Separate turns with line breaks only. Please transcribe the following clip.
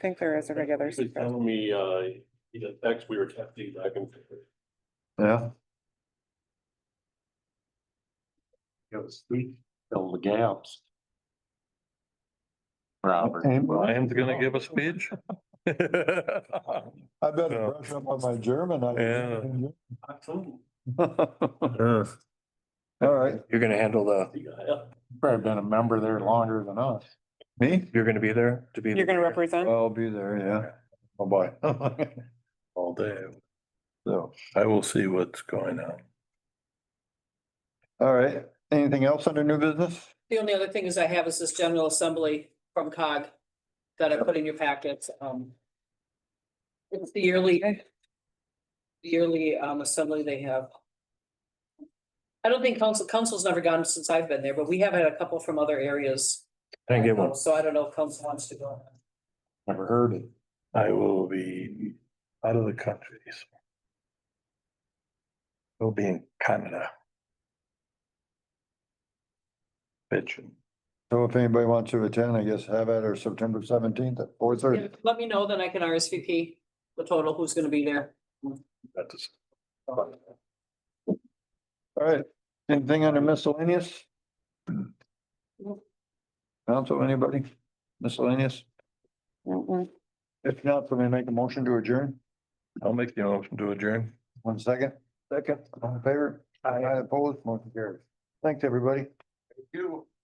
think there is a regular.
He was
secret.
telling me, uh, he had text, we were texting back and forth.
Yeah,
It was sweet, fill the gaps.
Robert.
and
I
well,
am gonna give a speech.
I better
Yeah.
brush up on my German. I-
Yeah.
All right,
You're gonna handle the,
probably been a member there longer than us. Me?
you're gonna be there to be.
You're gonna represent?
I'll be there, yeah. Oh, boy.
All day.
So,
I will see what's going on.
all right, anything else under new business?
The only other thing is I have is this general assembly from COG that I put in your packets, um. It's the yearly. Yearly, um, assembly they have. I don't think council, council's never gone since I've been there, but we have had a couple from other areas.
I didn't get one.
So I don't know if council wants to go.
Never heard it.
I will be out of the country. so. I'll be in Canada. Bitching.
So if anybody wants to attend, I guess have at our September seventeenth at four thirty.
Let me know, then I can RSVP the total, who's gonna be there.
That's
All right, anything under miscellaneous? Council, anybody? Miscellaneous?
Mm-mm.
If not, somebody make a motion to adjourn.
I'll make the motion to adjourn.
One second. Second. All in favor? I oppose, motion carries. Thanks, everybody. Thank you.